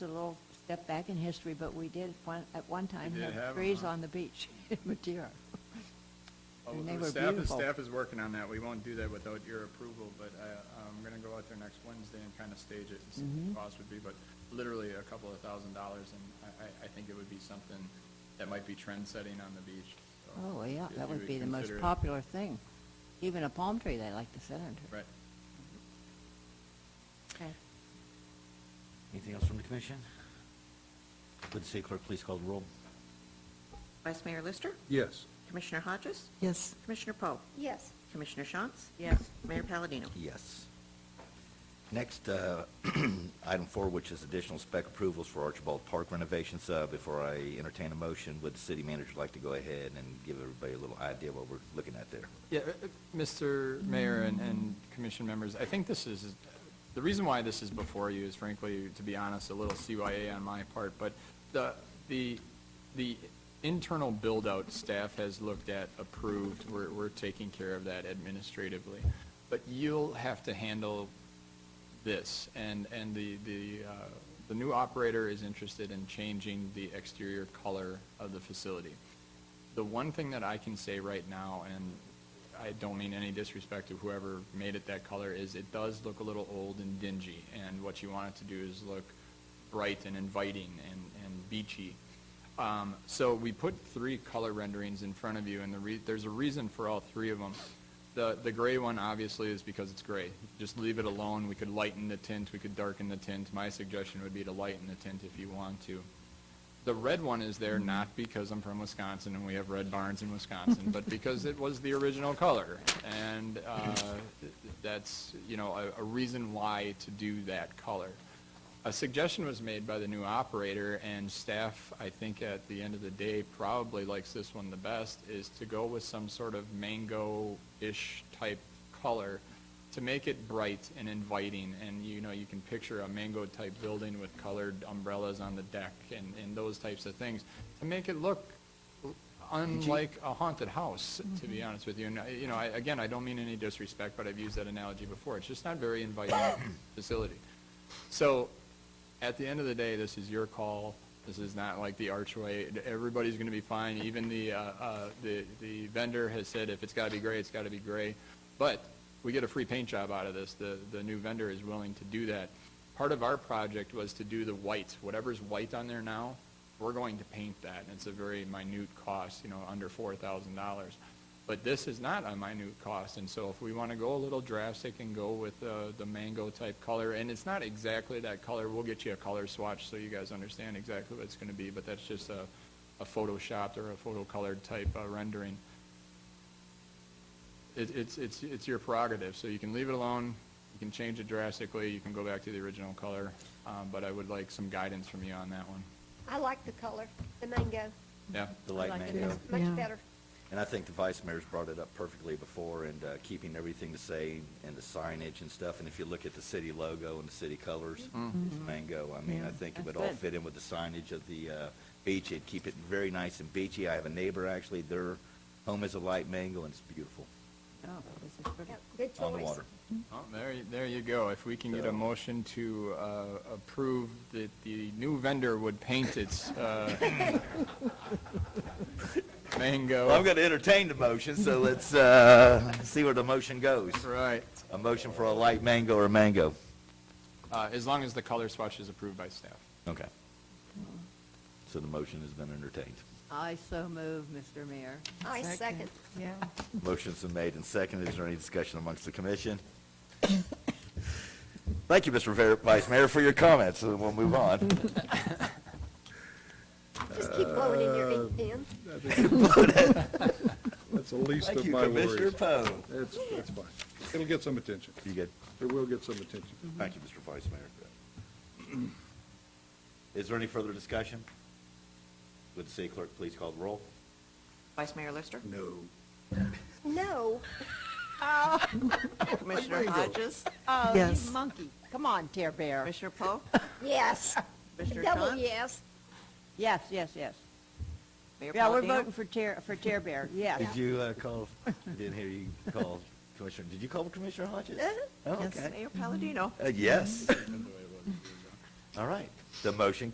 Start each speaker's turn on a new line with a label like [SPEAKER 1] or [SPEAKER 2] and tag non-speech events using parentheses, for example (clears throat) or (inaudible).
[SPEAKER 1] It's a little step back in history, but we did one, at one time
[SPEAKER 2] did have
[SPEAKER 1] have
[SPEAKER 2] 'em,
[SPEAKER 1] trees
[SPEAKER 2] huh?
[SPEAKER 1] on the beach (laughs) in Madeira.
[SPEAKER 2] Oh,
[SPEAKER 1] And they
[SPEAKER 2] the
[SPEAKER 1] were
[SPEAKER 2] staff-
[SPEAKER 1] beautiful.
[SPEAKER 2] The staff is working on that. We won't do that without your approval, but I- I'm going to go out there next Wednesday and kind of stage it and see
[SPEAKER 1] Mm-hmm.
[SPEAKER 2] what the cost would be, but literally a couple of thousand dollars, and I- I I think it would be something that might be trend-setting on the beach. So
[SPEAKER 1] Oh, yeah,
[SPEAKER 2] if
[SPEAKER 1] that
[SPEAKER 2] you
[SPEAKER 1] would be the most
[SPEAKER 2] consider it-
[SPEAKER 1] popular thing. Even a palm tree they like to sit under.
[SPEAKER 2] Right.
[SPEAKER 1] Okay.
[SPEAKER 3] Anything else from the commission? Would the city clerk please call the roll?
[SPEAKER 4] Vice Mayor Lister?
[SPEAKER 5] Yes.
[SPEAKER 4] Commissioner Hodges?
[SPEAKER 6] Yes.
[SPEAKER 4] Commissioner Poe?
[SPEAKER 7] Yes.
[SPEAKER 4] Commissioner Shantz? Yes. Mayor Palladino?
[SPEAKER 3] Yes. Next, uh, (clears throat) item four, which is additional spec approvals for Archibald Park renovations. Uh, Before I entertain a motion, would the city manager like to go ahead and give everybody a little idea what we're looking at there?
[SPEAKER 2] Yeah, uh, uh, Mr. Mayor and, and commission members, I think this is, the reason why this is before you is frankly, to be honest, a little CYA on my part, but the, the, the internal build-out staff has looked at, approved, we're, we're taking care of that administratively. But you'll have to handle this, and, and the, the, uh, the new operator is interested in changing the exterior color of the facility. The one thing that I can say right now, and I don't mean any disrespect to whoever made it that color, is it does look a little old and dingy, and what you want it to do is look bright and inviting and, and beachy. Um, so we put three color renderings in front of you, and the re- there's a reason for all three of them. The, the gray one obviously is because it's gray. Just leave it alone. We could lighten the tint, we could darken the tint. My suggestion would be to lighten the tint if you want to. The red one is there not because I'm from Wisconsin and we have red barns in Wisconsin, but because it was the original color. And uh, that's, you know, a, a reason why to do that color. A suggestion was made by the new operator and staff, I think at the end of the day, probably likes this one the best, is to go with some sort of mango-ish type color to make it bright and inviting, and you know, you can picture a mango-type building with colored umbrellas on the deck and, and those types of things, to make it look unlike a haunted house, to be honest with you. And, I- you know, I, again, I don't mean any disrespect, but I've used that analogy before. It's just not very inviting facility. So, at the end of the day, this is your call. This is not like the archway. Everybody's going to be fine. Even the, uh, uh, the the vendor has said if it's got to be gray, it's got to be gray. But we get a free paint job out of this. The, the new vendor is willing to do that. Part of our project was to do the white. Whatever's white on there now, we're going to paint that. And it's a very minute cost, you know, under $4,000. But this is not a minute cost, and so if we want to go a little drastic and go with uh, the mango-type color, and it's not exactly that color, we'll get you a color swatch so you guys understand exactly what it's going to be, but that's just a a photoshopped or a photo-colored type uh, rendering. It- It's it's it's your prerogative, so you can leave it alone, you can change it drastically, you can go back to the original color, um, but I would like some guidance from you on that one.
[SPEAKER 7] I like the color, the mango.
[SPEAKER 2] Yeah?
[SPEAKER 3] The light
[SPEAKER 1] like it.
[SPEAKER 3] mango.
[SPEAKER 7] It's much
[SPEAKER 6] Yeah.
[SPEAKER 7] better.
[SPEAKER 3] And I think the vice mayor's brought it up perfectly before and uh, keeping everything the same and the signage and stuff. And if you look at the city logo and the city colors, it's mango. I mean, I
[SPEAKER 6] Yeah,
[SPEAKER 3] think
[SPEAKER 1] Mm-hmm. that's
[SPEAKER 3] it would all
[SPEAKER 1] good.
[SPEAKER 3] fit in with the signage of the uh, beach. It'd keep it very nice and beachy. I have a neighbor, actually, their home is a light mango and it's beautiful
[SPEAKER 1] Oh, this is pretty.
[SPEAKER 7] Yeah, Good choice.
[SPEAKER 3] on the water.
[SPEAKER 2] Well, there, you- there you go. If we can get a motion to uh, approve that the new vendor would paint its uh,
[SPEAKER 3] Well, I'm
[SPEAKER 2] mango.
[SPEAKER 3] going to entertain the motion, so let's uh, see where the motion goes.
[SPEAKER 2] Right.
[SPEAKER 3] A motion for a light mango or mango.
[SPEAKER 2] Uh, As long as the color swatch is approved by staff.
[SPEAKER 3] Okay. So the motion has been entertained.
[SPEAKER 1] I so move, Mr. Mayor.
[SPEAKER 7] I second.
[SPEAKER 6] Yeah.
[SPEAKER 3] Motion's been made and seconded. Is there any discussion amongst the commission? Thank you, Mr. Ver- Vice Mayor, for your comments, and we'll move on.
[SPEAKER 7] Just keep blowing in
[SPEAKER 1] Uh,
[SPEAKER 7] your ink pen.
[SPEAKER 5] That's the least of my worries.
[SPEAKER 3] Poe.
[SPEAKER 5] That's, that's fine. It'll get some attention.
[SPEAKER 3] You good?
[SPEAKER 5] It will get some attention.
[SPEAKER 3] Thank you, Mr. Vice Mayor. (clears throat) Is there any further discussion? Would the city clerk please call the roll?
[SPEAKER 4] Vice Mayor Lister?
[SPEAKER 5] No.
[SPEAKER 7] No,
[SPEAKER 4] Commissioner Hodges?
[SPEAKER 1] Oh,
[SPEAKER 6] Yes.
[SPEAKER 1] you monkey. Come on, Tear Bear.
[SPEAKER 4] Commissioner (laughs) Poe?
[SPEAKER 7] yes,
[SPEAKER 4] Commissioner
[SPEAKER 7] double
[SPEAKER 4] Shantz?
[SPEAKER 7] yes.
[SPEAKER 1] Yes, yes, yes.
[SPEAKER 4] Mayor
[SPEAKER 1] Yeah, we're
[SPEAKER 4] Palladino?
[SPEAKER 1] voting for Tear, for Tear Bear, yes.
[SPEAKER 3] Did you uh, call, (laughs) didn't hear you call Commissioner, did you call Commissioner Hodges?
[SPEAKER 4] Uh,
[SPEAKER 3] Oh,
[SPEAKER 6] Yes.
[SPEAKER 3] okay.
[SPEAKER 4] Mayor Palladino?
[SPEAKER 3] Uh, Yes. All right. The motion